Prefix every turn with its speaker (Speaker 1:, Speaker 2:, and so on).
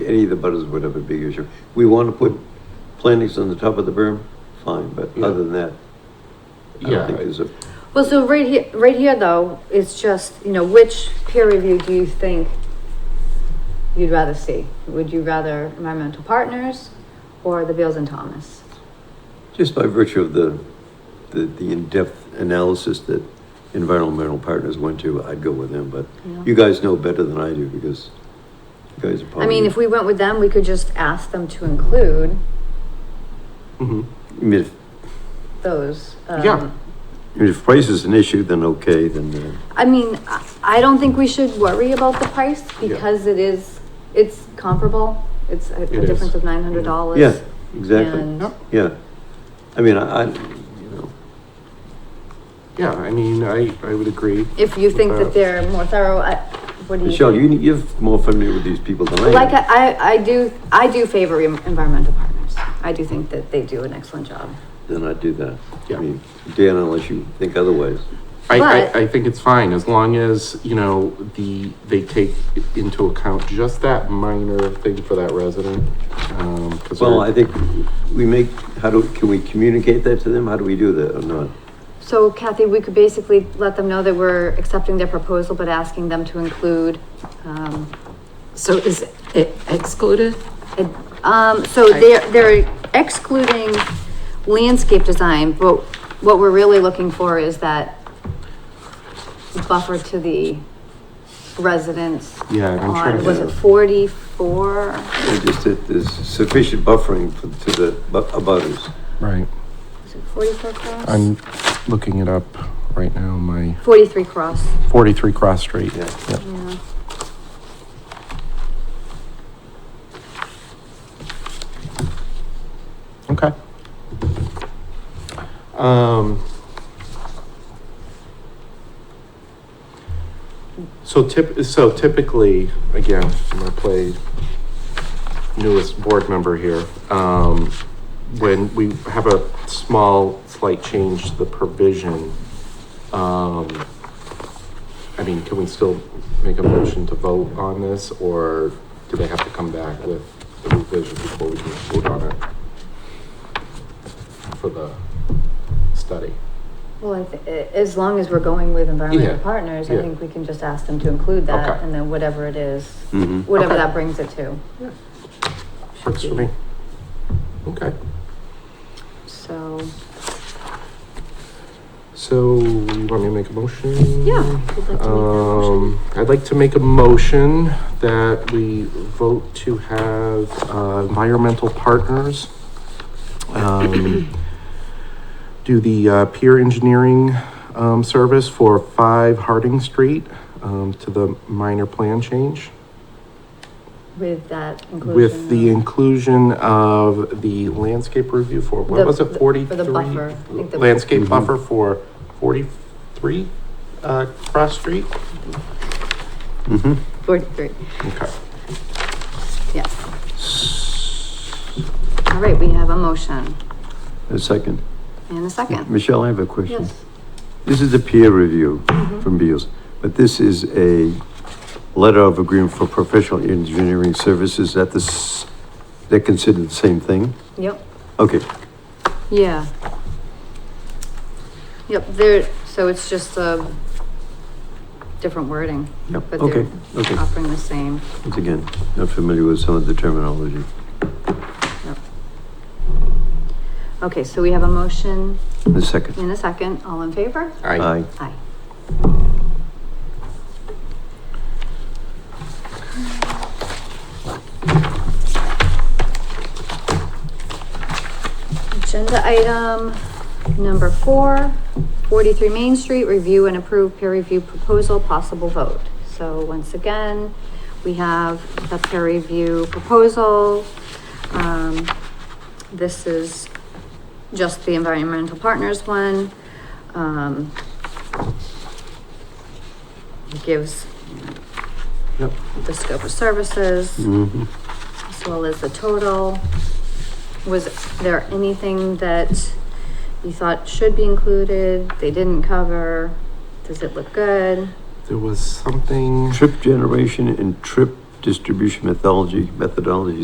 Speaker 1: Any of the butters would have a big issue. We want to put plantings on the top of the berm, fine, but
Speaker 2: Yeah.
Speaker 1: other than that, I
Speaker 2: Yeah,
Speaker 1: don't think there's a,
Speaker 3: Well, so right here, right here though, it's just, you know, which peer review do you think you'd rather see? Would you rather environmental partners or the Beals and Thomas?
Speaker 1: just by virtue of the, the, the in-depth analysis that environmental partners went to, I'd go with them, but
Speaker 3: you know?
Speaker 1: you guys know better than I do because you guys are
Speaker 3: I
Speaker 1: probably.
Speaker 3: mean, if we went with them, we could just ask them to include
Speaker 2: Mhm.
Speaker 1: I mean, if,
Speaker 3: those. um,
Speaker 2: Yeah.
Speaker 1: I mean, if price is an issue, then okay, then, uh,
Speaker 3: I mean, I- I don't think we should worry about the price
Speaker 2: Yeah.
Speaker 3: because it is, it's comparable. It's a a
Speaker 2: It is.
Speaker 3: difference of nine hundred dollars.
Speaker 1: yeah, exactly,
Speaker 3: And
Speaker 2: Yep.
Speaker 1: yeah. I mean, I, I, you know,
Speaker 2: yeah, I mean, I, I would agree.
Speaker 3: if you think
Speaker 2: Uh,
Speaker 3: that they're more thorough, I, what do you?
Speaker 1: Michelle,
Speaker 3: think?
Speaker 1: you, you're more familiar with these people than I am.
Speaker 3: Like, I, I- I do, I do favor em- environmental partners. I do think that they do an excellent job.
Speaker 1: then I'd do that. I
Speaker 2: Yeah.
Speaker 1: mean, Dan, unless you think otherwise.
Speaker 2: I,
Speaker 3: But-
Speaker 2: I, I think it's fine as long as, you know, the, they take into account just that minor thing for that resident. Um, 'cause
Speaker 1: Well,
Speaker 2: they're-
Speaker 1: I think we make, how do, can we communicate that to them? How do we do that or not?
Speaker 3: So Kathy, we could basically let them know that we're accepting their proposal, but asking them to include, um,
Speaker 4: So is it excluded?
Speaker 3: ed- um, so they're, they're excluding landscape design, but what we're really looking for is that buffer to the residents.
Speaker 2: Yeah, I'm trying
Speaker 3: on,
Speaker 2: to-
Speaker 3: was it forty-four?
Speaker 1: Or just that there's sufficient buffering for- to the bu- abutters.
Speaker 2: Right,
Speaker 3: Was it forty-four cross?
Speaker 2: I'm looking it up right now, my
Speaker 3: Forty-three cross,
Speaker 2: forty-three Cross Street.
Speaker 1: Yeah.
Speaker 2: Yep.
Speaker 3: yeah.
Speaker 2: Okay. Um. So tip, so typically, again, I'm gonna play newest board member here. Um, when we have a small slight change to the provision, um, I mean, can we still make a motion to vote on this or do they have to come back with the revision before we can vote on it? for the study.
Speaker 3: Well, I thi- a- as long as we're going with environmental
Speaker 2: Yeah,
Speaker 3: partners, I
Speaker 2: yeah.
Speaker 3: think we can just ask them to include that
Speaker 2: Okay. Mm.
Speaker 3: and then whatever it is,
Speaker 1: Mhm.
Speaker 3: whatever
Speaker 2: Okay.
Speaker 3: that brings it to,
Speaker 2: Works for me. Okay,
Speaker 3: so.
Speaker 2: so you want me to make a motion?
Speaker 3: Yeah, I'd like to make that motion.
Speaker 2: Um, I'd like to make a motion that we vote to have uh, environmental partners um, do the uh, peer engineering um, service for five Harding Street um, to the minor plan change.
Speaker 3: With that inclusion.
Speaker 2: With the
Speaker 3: of-
Speaker 2: inclusion of the landscape review for,
Speaker 3: The-
Speaker 2: what was
Speaker 3: the-
Speaker 2: it, forty-three?
Speaker 3: for the buffer, I think the-
Speaker 2: Landscape
Speaker 1: Mhm.
Speaker 2: buffer for forty-three, uh, Cross Street?
Speaker 1: Mhm.
Speaker 3: Forty-three,
Speaker 2: Okay.
Speaker 3: yes. All right, we have a motion
Speaker 1: A second.
Speaker 3: and a second.
Speaker 1: Michelle, I have a question.
Speaker 3: Yes.
Speaker 1: This is a peer review
Speaker 3: Mhm.
Speaker 1: from Beals, but this is a letter of agreement for professional engineering services at the, s- they're considered the same thing?
Speaker 3: Yep,
Speaker 1: Okay,
Speaker 3: yeah. Yep, there, so it's just a different wording,
Speaker 1: yep,
Speaker 3: but
Speaker 1: okay,
Speaker 3: they're
Speaker 1: okay.
Speaker 3: offering the same.
Speaker 1: Once again, not familiar with some of the terminology.
Speaker 3: Okay, so we have a motion
Speaker 1: A second.
Speaker 3: In a second, all in favor?
Speaker 2: I,
Speaker 3: Aye. Agenda item number four, 43 Main Street, review and approve peer review proposal, possible vote. So once again, we have the peer review proposal. Um, this is just the environmental partners one. Um, it gives
Speaker 2: Yep.
Speaker 3: the scope of services
Speaker 1: Mhm.
Speaker 3: as well as the total. Was there anything that you thought should be included, they didn't cover? Does it look good?
Speaker 2: there was something,
Speaker 1: Trip generation and trip distribution methodology, methodology